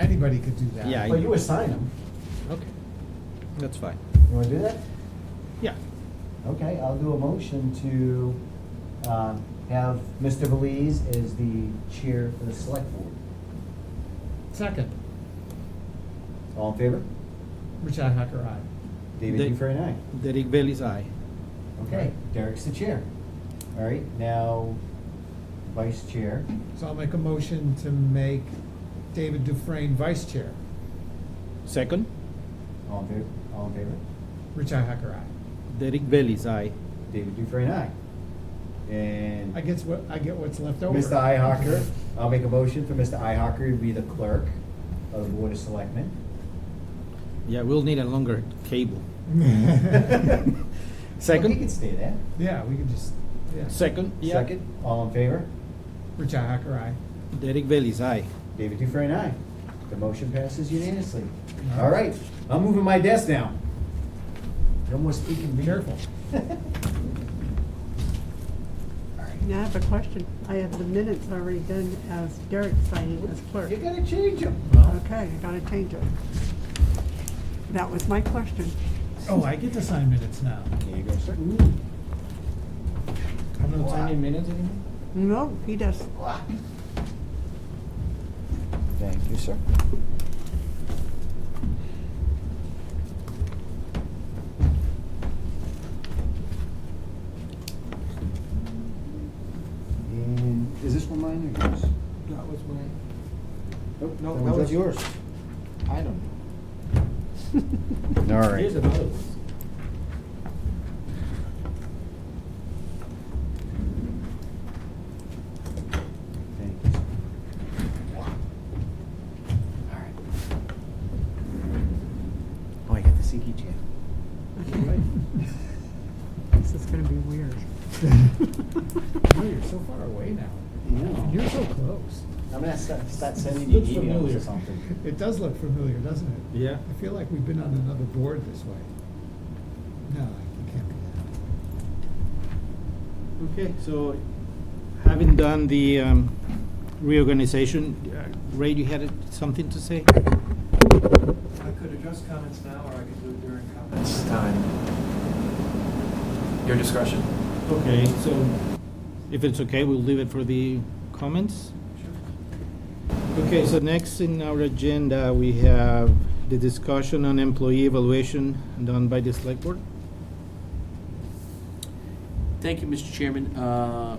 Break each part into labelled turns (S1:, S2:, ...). S1: anybody could do that.
S2: Yeah.
S3: But you assign them.
S2: Okay, that's fine.
S3: You wanna do that?
S2: Yeah,
S3: Okay, I'll do a motion to um, have Mr. Belize as the chair for the select board.
S1: Second,
S3: All in favor?
S1: Richi Hacker, aye.
S3: David
S2: Dave.
S3: Dufresne, aye.
S2: Derek Bailey's aye.
S3: Okay, Derek's the chair. All right, now vice chair.
S1: So I'll make a motion to make David Dufresne vice chair.
S2: Second,
S3: All in favor? All in favor?
S1: Richi Hacker, aye.
S2: Derek Bailey's aye.
S3: David Dufresne, aye. And
S1: I guess what, I get what's left over.
S3: Mr. Ihawker, I'll make a motion for Mr. Ihawker to be the clerk of the Board of Selectmen.
S2: Yeah, we'll need a longer cable.
S3: Well, He can
S2: Second,
S3: stay there.
S1: Yeah, we could just, yeah.
S2: second, yeah.
S3: Second, all in favor?
S1: Richi Hacker, aye.
S2: Derek Bailey's aye.
S3: David Dufresne, aye. The motion passes unanimously. All right, I'm moving my desk now. No more speaking.
S1: Be
S3: bee.
S1: careful.
S3: All
S4: Now I have a question. I have the minutes already done as Derek signing as
S3: right,
S4: clerk.
S3: You gotta change them.
S4: Okay, I gotta change it. That was my question.
S1: Oh, I get to sign minutes now.
S3: There you go, sir.
S1: I'm
S2: Oh,
S1: not signing minutes.
S4: No, he does.
S3: Thank you, sir. And is this one mine or yours?
S5: That was my,
S3: Nope,
S5: No,
S3: one's
S5: that was-
S3: yours.
S5: I don't know.
S3: All right.
S2: Here's another one.
S3: Thank you. All right. Oh, I got the Siki chair.
S4: This is gonna be weird.
S1: Oh, you're so far away now.
S3: You know.
S1: You're so close.
S3: I'm gonna start, start sending you
S2: Looks
S3: emails
S2: familiar.
S3: or something.
S1: It does look familiar, doesn't it?
S2: Yeah.
S1: I feel like we've been on another board this way. No, it can't be that.
S2: Okay, so having done the um, reorganization, uh, Ray, you had something to say?
S6: I could address comments now, or I could do it during comments. Time. Your discretion.
S2: Okay, so if it's okay, we'll leave it for the comments. Okay, so next in our agenda, we have the discussion on employee evaluation done by the select board.
S7: Thank you, Mr. Chairman. Uh,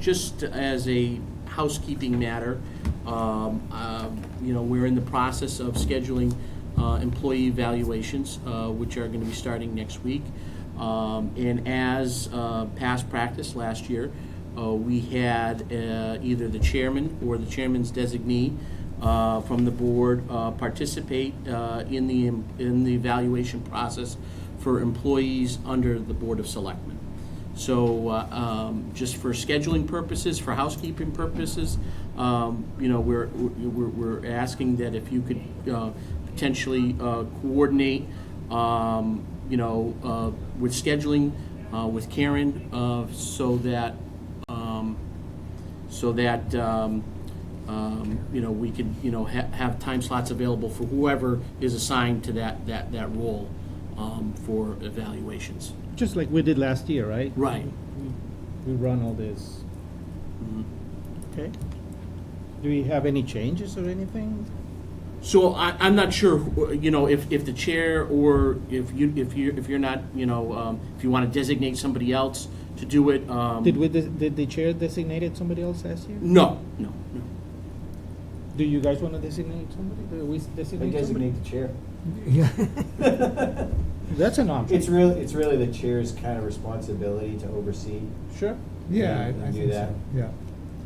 S7: Just as a housekeeping matter, um, um, you know, we're in the process of scheduling uh, employee evaluations, uh, which are going to be starting next week. Um, And as uh, past practice last year, uh, we had uh, either the chairman or the chairman's designee uh, from the board uh, participate uh, in the, in the evaluation process for employees under the Board of Selectmen. So, uh, um, just for scheduling purposes, for housekeeping purposes, um, you know, we're, we're, we're asking that if you could, uh, potentially, uh, coordinate, um, you know, uh, with scheduling, uh, with Karen, uh, so that, um, so that, um, um, you know, we could, you know, ha- have time slots available for whoever is assigned to that, that, that role, um, for evaluations.
S2: Just like we did last year, right?
S7: Right.
S2: We run all this. Okay. Do we have any changes or anything?
S7: So I, I'm not sure, wh- you know, if, if the chair or if you, if you, if you're not, you know, um, if you want to designate somebody else to do it. um, Mm.
S2: Did we, des- did the chair designated somebody else last year?
S7: No, no, no.
S2: Do you guys want to designate somebody? Do we
S3: I
S2: designate somebody?
S3: designate the chair.
S1: Yeah.
S2: That's an option.
S3: It's really, it's really the chair's kind of responsibility to oversee.
S2: Sure.
S1: Yeah, I-
S3: You
S1: I
S3: do
S1: think
S3: that.
S1: so, yeah.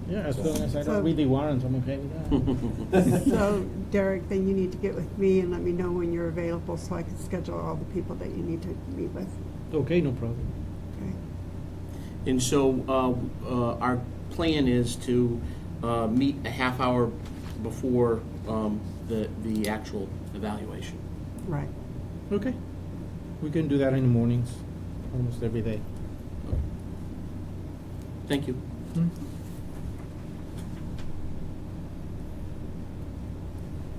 S2: Yeah, as long as I
S4: So-
S2: don't read the warrants, I'm okay with that.
S4: So Derek, then you need to get with me and let me know when you're available so I can schedule all the people that you need to meet with.
S2: Okay, no problem.
S4: Okay.
S7: And so uh, uh, our plan is to uh, meet a half hour before um, the, the actual evaluation.
S4: Right.
S2: Okay. We can do that in the mornings, almost every day.
S7: Thank you.